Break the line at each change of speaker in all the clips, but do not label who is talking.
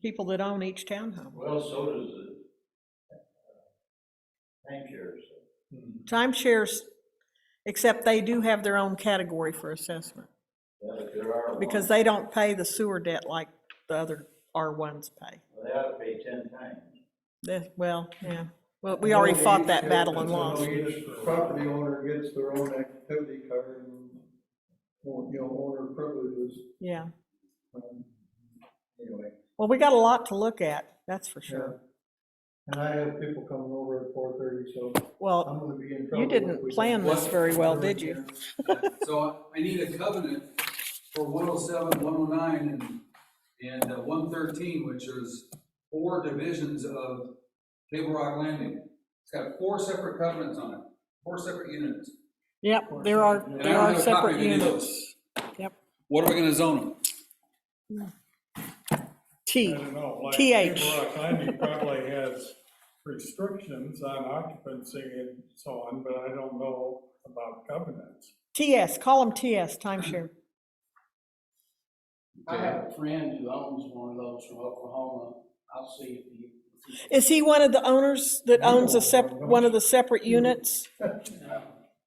people that own each townhome.
Well, so does the uh, timeshares.
Timeshares, except they do have their own category for assessment,
Yeah, but there are.
because
ones-
they don't pay the sewer debt like the other R1s pay.
They ought to pay ten times.
That- well, yeah, well, we already fought that battle and lost.
So each Property owner gets their own activity card and, well, you know, owner privileges,
Yeah,
um, anyway.
well, we got a lot to look at, that's for
yeah.
sure.
And I have people coming over at four thirty, so
Well,
I'm gonna be in trouble.
you
if we
didn't
don't-
plan this very well, did you?
So I need a covenant for 107, 109, and, and uh, 113, which is four divisions of Table Rock Landing. It's got four separate covenants on it, four separate units.
Yep, there are,
And I
there
don't
are
have a copy
separate
of any of those.
units. Yep,
What are we gonna zone them?
T,
I don't know, like
TH.
People Rock Landing probably has restrictions on occupancy and so on, but I don't know about covenants.
TS, call them TS, timeshare.
I have a friend who owns one of those from Oklahoma. I'll see if he, if
Is he one of the owners that owns a sep,
No.
one of the separate units?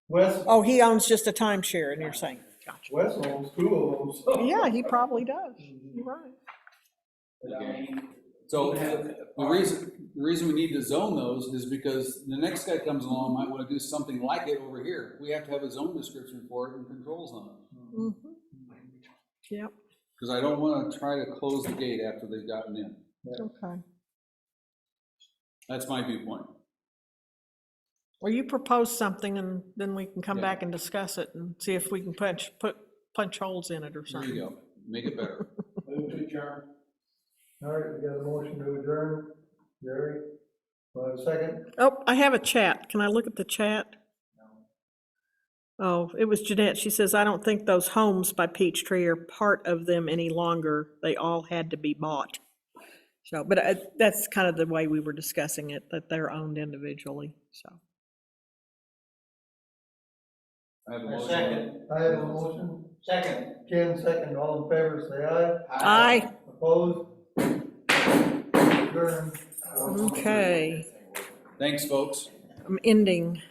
Wes,
Oh, he owns just a timeshare, and you're saying, gotcha.
Wes owns two of them, so.
Yeah, he probably does. You're right.
he- I mean,
So the the reason, the reason we need to zone those is because the next guy comes along might wanna do something like it over here. We have to have a zone description for it and controls on it.
Mhm. Yep,
Cause I don't wanna try to close the gate after they've gotten in.
okay.
That's my viewpoint.
Well, you propose something, and then we can come back and discuss it and see if we can punch, put, punch holes in it or
There
something.
you go. Make it better.
move to adjourn.
All right, we got a motion to adjourn, Jerry, do I have a second?
Oh, I have a chat. Can I look at the chat? Oh, it was Jeanette. She says, I don't think those homes by Peachtree are part of them any longer. They all had to be bought. So, but uh, that's kind of the way we were discussing it, that they're owned individually, so.
I have a motion.
Second,
I have a motion,
second.
Ken second, all in favor, say aye.
Aye,
Opposed? Adjourned.
okay,
Thanks, folks.
I'm ending.